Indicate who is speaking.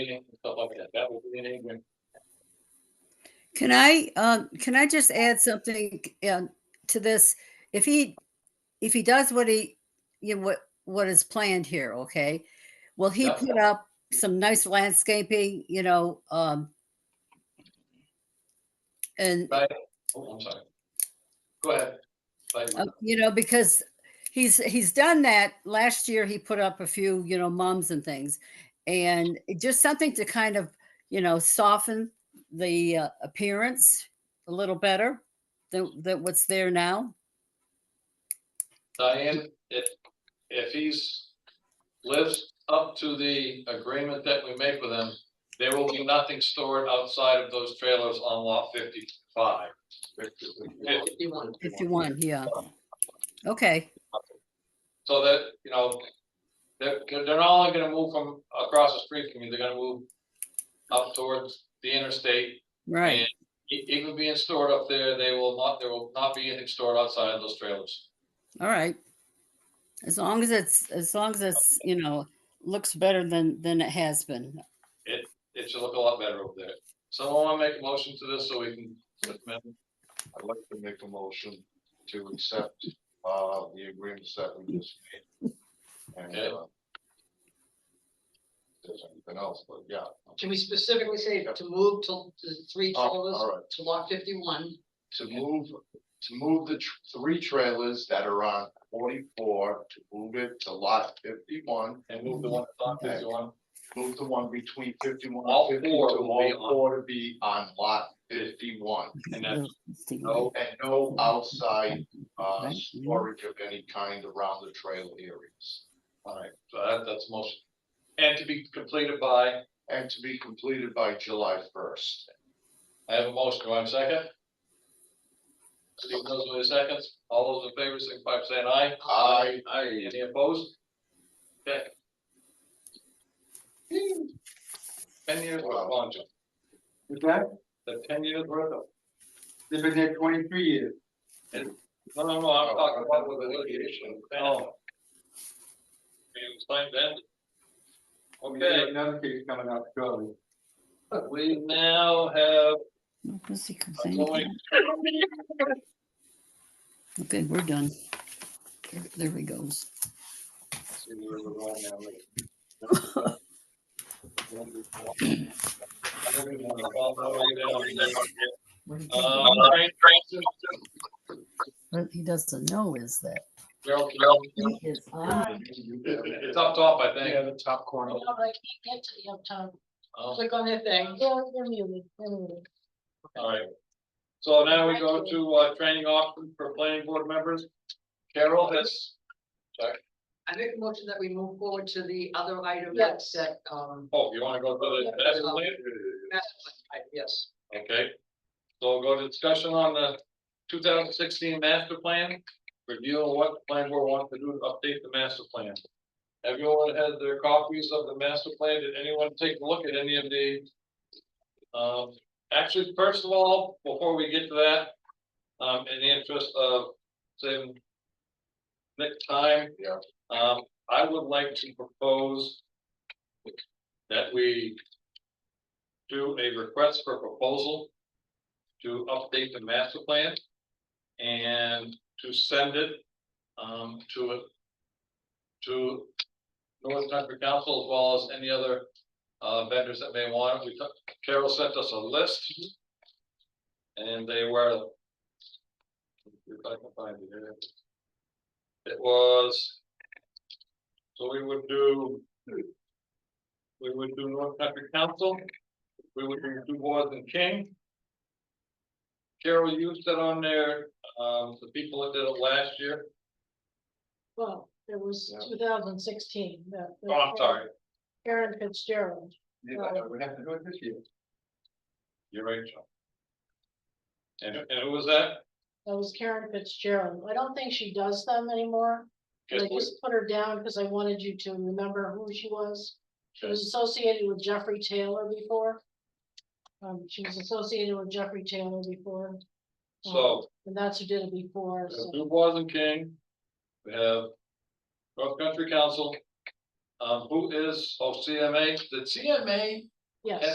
Speaker 1: meeting and stuff like that. That will be in England.
Speaker 2: Can I, uh, can I just add something uh, to this? If he, if he does what he, you know, what, what is planned here, okay? Will he
Speaker 1: Yeah.
Speaker 2: put up some nice landscaping, you know, um, and
Speaker 1: Oh, I'm sorry. Go ahead. Like,
Speaker 2: Uh, you know because he's he's done that last year he put up a few you know mums and things and it just something to kind of you know soften the uh, appearance a little better than, than what's there now
Speaker 1: Diane, if, if he's lives up to the agreement that we make with him, there will be nothing stored outside of those trailers on lot fifty-five. Fifty-one.
Speaker 2: 51 yeah okay
Speaker 1: So that, you know, they're, they're not only gonna move from across the street from you, they're gonna move up towards the interstate.
Speaker 2: right
Speaker 1: And e- Even being stored up there, they will not, there will not be anything stored outside of those trailers.
Speaker 2: all right as long as it's as long as it's you know looks better than than it has been
Speaker 1: It should look a lot better over there. Someone wanna make a motion to this so we can amend
Speaker 3: I'd like to make a motion to accept, uh, the agreements that we just made. And, uh, there's anything else, but yeah.
Speaker 4: Can we specifically say to move to to the three
Speaker 3: Oh,
Speaker 4: trailers
Speaker 3: all right.
Speaker 4: to lot fifty-one?
Speaker 3: To move, to move the tr- three trailers that are on forty-four, to move it to lot fifty-one,
Speaker 1: and move the one that's on fifty-one.
Speaker 3: move the one between fifty-one
Speaker 1: All
Speaker 3: and fifty-two,
Speaker 1: four will be
Speaker 3: all
Speaker 1: on-
Speaker 3: four to be on lot fifty-one.
Speaker 1: And that's
Speaker 2: no,
Speaker 1: no,
Speaker 3: And no outside, uh,
Speaker 2: Right.
Speaker 3: storage of any kind around the trail areas.
Speaker 1: alright, so that, that's the motion. And to be completed by,
Speaker 3: and to be completed by July first.
Speaker 1: I have a motion, do I have a second? Steve knows what seconds, all those in favor, signify by saying aye.
Speaker 3: Aye.
Speaker 1: Aye, any opposed? Okay. Ten years, worth of lawn jobs.
Speaker 5: What's that?
Speaker 1: the ten years worth of,
Speaker 5: They've been there twenty-three years.
Speaker 1: no, no, no, I'm talking about with the litigation. Oh. You explained that?
Speaker 5: We got
Speaker 1: Okay,
Speaker 5: Another case coming up shortly.
Speaker 1: we now have
Speaker 2: pussy
Speaker 1: a
Speaker 2: complaining.
Speaker 1: going,
Speaker 2: okay we're done there, there he goes
Speaker 1: let's see where we're going now. I don't even wanna fall that way down.
Speaker 2: Where did he go?
Speaker 1: Uh, Brian Francis,
Speaker 2: what he doesn't know is that
Speaker 1: Gerald,
Speaker 2: he is on
Speaker 1: it's up top, I think.
Speaker 3: the top corner.
Speaker 4: No, I can't get to the uptown.
Speaker 1: Oh.
Speaker 4: Click on that thing.
Speaker 1: All right. So now we
Speaker 4: Thank
Speaker 1: go
Speaker 4: you.
Speaker 1: to, uh, training option for planning board members. Carol has,
Speaker 4: I make a motion that we move forward to the other item that's that, um,
Speaker 1: oh, you wanna go to the, that's later?
Speaker 4: master plan, yes.
Speaker 1: Okay. So we'll go to discussion on the two thousand sixteen master plan, review of what the plan board wants to do to update the master plan. Everyone has their copies of the master plan. Did anyone take a look at any of the? Um, actually, first of all, before we get to that, um, in the interest of saving. Nick time.
Speaker 3: Yeah.
Speaker 1: Um, I would like to propose. That we do a request for proposal to update the master plan and to send it um to it to North Country Council as well as any other uh vendors that may want it. We took, Carol sent us a list. And they were if I can find it here. It was so we would do we would do North Country Council, we would do Boys and King. Carol, you said on there, um, the people that did it last year,
Speaker 6: Well, it was
Speaker 3: Yeah.
Speaker 6: two thousand sixteen.
Speaker 1: oh, I'm sorry,
Speaker 6: Karen Fitzgerald.
Speaker 5: Yeah, but we have to do it this year.
Speaker 1: you're right, John. And, and who was that?
Speaker 6: That was Karen Fitzgerald. I don't think she does them anymore. but I
Speaker 1: Guess
Speaker 6: just put her down because I wanted you to remember who she was. She was associated with Jeffrey Taylor before. Um, she was associated with Jeffrey Taylor before,
Speaker 1: who- So,
Speaker 6: and that's who did it before,
Speaker 1: we have
Speaker 6: so.
Speaker 1: Du Bois and King, we have North Country Council, um, who is, oh, CMA, did CMA
Speaker 6: Yes.